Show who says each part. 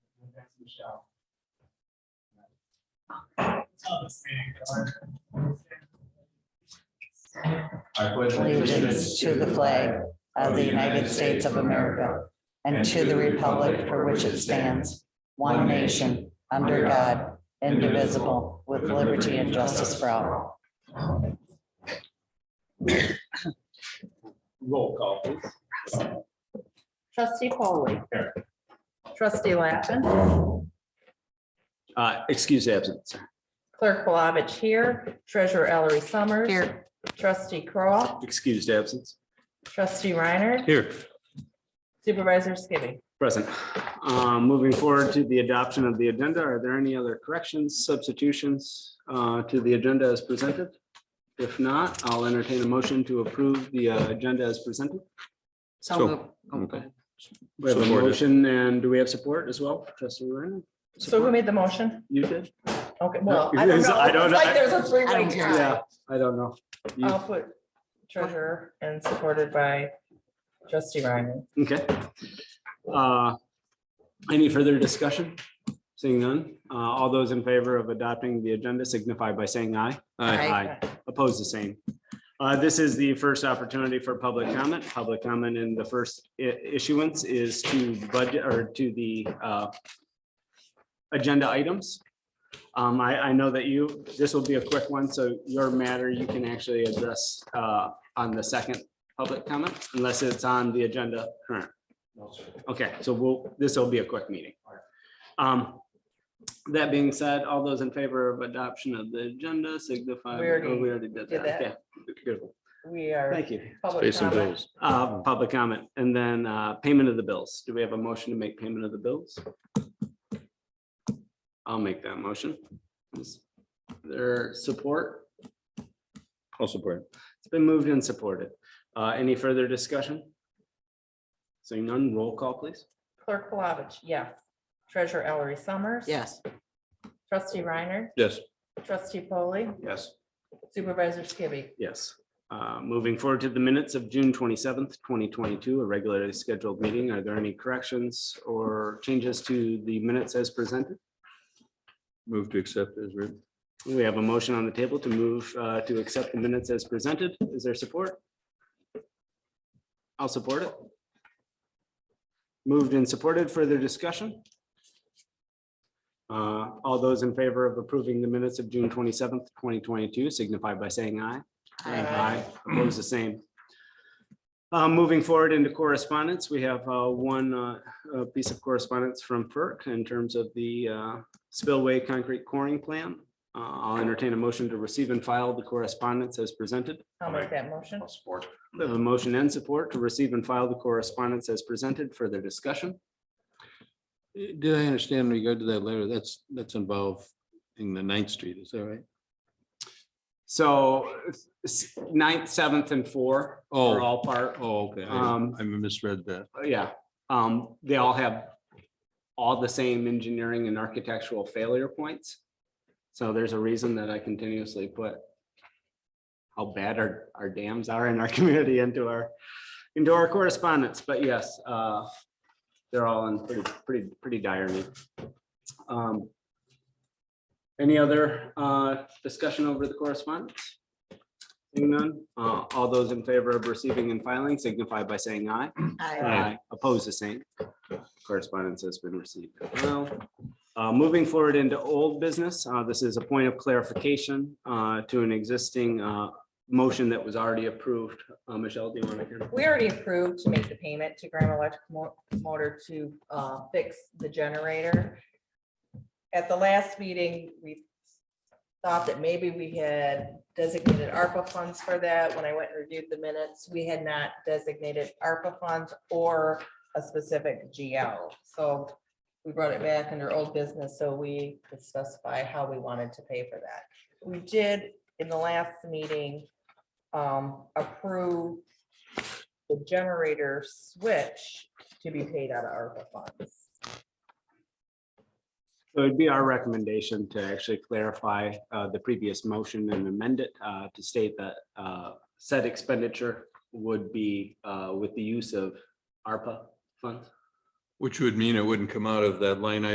Speaker 1: Michelle.
Speaker 2: I pledge
Speaker 3: allegiance to the flag of the United States of America and to the republic for which it stands, one nation, under God, indivisible, with liberty and justice for all.
Speaker 2: Roll call, please.
Speaker 4: Trustee Foley, Trustee Lappin.
Speaker 5: Uh, excuse absence.
Speaker 4: Clerk Palovich here. Treasurer Ellery Summers.
Speaker 3: Here.
Speaker 4: Trustee Kroll,
Speaker 5: Excused absence.
Speaker 4: Trustee Reiner.
Speaker 5: Here.
Speaker 4: Supervisor Skibby.
Speaker 5: Present. Um, moving forward to the adoption of the agenda, are there any other corrections, substitutions, uh, to the agenda as presented? If not, I'll entertain a motion to approve the uh, agenda as presented.
Speaker 6: So,
Speaker 3: So moved.
Speaker 6: okay.
Speaker 5: We have a
Speaker 6: Supported.
Speaker 5: motion and do we have support as well? Trustee Reiner?
Speaker 4: So who
Speaker 5: Support?
Speaker 4: made the motion?
Speaker 5: You did?
Speaker 4: Okay, well, I
Speaker 5: It
Speaker 4: don't
Speaker 5: is-
Speaker 4: know.
Speaker 5: I
Speaker 4: It's
Speaker 5: don't know.
Speaker 4: Like there's a
Speaker 3: I
Speaker 4: three-way
Speaker 3: don't care.
Speaker 4: tie.
Speaker 5: Yeah, I don't know. You-
Speaker 4: I'll put treasurer and supported by trustee Reiner.
Speaker 5: Okay. Uh, Any further discussion? Seeing none, uh, all those in favor of adopting the agenda signify by saying aye.
Speaker 6: Aye.
Speaker 5: Aye. Opposed, the same. Uh, This is the first opportunity for public comment. Public comment in the first i- issuance is to budget or to the uh, agenda items. Um, I, I know that you, this will be a quick one, so your matter you can actually address uh, on the second public comment unless it's on the agenda current. Okay, so we'll, this will be a quick meeting. Um, That being said, all those in favor of adoption of the agenda signify.
Speaker 4: We already
Speaker 5: oh, We already did
Speaker 4: did
Speaker 5: that.
Speaker 4: that.
Speaker 5: Okay, Good.
Speaker 4: We are.
Speaker 5: Thank you.
Speaker 4: public
Speaker 6: Pay some
Speaker 4: comment.
Speaker 6: bills.
Speaker 5: Uh,
Speaker 6: Uh-huh.
Speaker 5: Public comment and then uh, payment of the bills. Do we have a motion to make payment of the bills? I'll make that motion. Is There support?
Speaker 6: I'll support.
Speaker 5: It's been moved and supported. Uh, Any further discussion? Seeing none, roll call, please.
Speaker 4: Clerk Palovich, yes. Treasurer Ellery Summers.
Speaker 3: Yes,
Speaker 4: Trustee Reiner,
Speaker 6: Yes,
Speaker 4: trustee Foley,
Speaker 5: Yes.
Speaker 4: supervisor Skibby.
Speaker 5: Yes. Uh, Moving forward to the minutes of June twenty-seventh, twenty twenty-two, a regularly scheduled meeting. Are there any corrections or changes to the minutes as presented?
Speaker 6: move to accept as written.
Speaker 5: We have a motion on the table to move uh, to accept the minutes as presented. Is there support? I'll support it. Moved and supported. Further discussion? Uh, All those in favor of approving the minutes of June twenty-seventh, twenty twenty-two signify by saying aye. Aye. Opposed, the same. Uh, Moving forward into correspondence, we have uh, one uh, uh, piece of correspondence from FERC in terms of the uh, spillway concrete coring plan. Uh, I'll entertain a motion to receive and file the correspondence as presented.
Speaker 4: I'll make that motion.
Speaker 2: Support.
Speaker 5: We have a motion and support to receive and file the correspondence as presented. Further discussion?
Speaker 6: Did I understand in regard to that letter? That's, that's involved in the Ninth Street, is that right?
Speaker 5: So s- ninth, seventh, and four are
Speaker 6: Oh.
Speaker 5: all part,
Speaker 6: Oh, okay. I
Speaker 5: Um,
Speaker 6: I misread that.
Speaker 5: Uh, Yeah, um, they all have all the same engineering and architectural failure points. So there's a reason that I continuously put how bad our, our dams are in our community into our, into our correspondence, but yes, uh, they're all in pretty, pretty, pretty dire need. Um, Any other, uh, discussion over the correspondence? Seeing none, uh, all those in favor of receiving and filing signify by saying aye.
Speaker 3: I,
Speaker 5: I Oppose the same. Correspondence has been received. as Well, Uh, moving forward into old business, uh, this is a point of clarification uh, to an existing uh, motion that was already approved. Uh, Michelle, do you want to hear?
Speaker 4: We already approved to make the payment to Graham Electric Mo- Motor to uh, fix the generator. At the last meeting, we thought that maybe we had designated ARPA funds for that. When I went and reviewed the minutes, we had not designated ARPA funds or a specific GL. So we brought it back under old business, so we could specify how we wanted to pay for that. We did, in the last meeting, um, approve the generator switch to be paid out of ARPA funds.
Speaker 5: So it'd be our recommendation to actually clarify uh, the previous motion and amend it uh, to state that uh, said expenditure would be uh, with the use of ARPA funds.
Speaker 6: Which would mean it wouldn't come out of that line item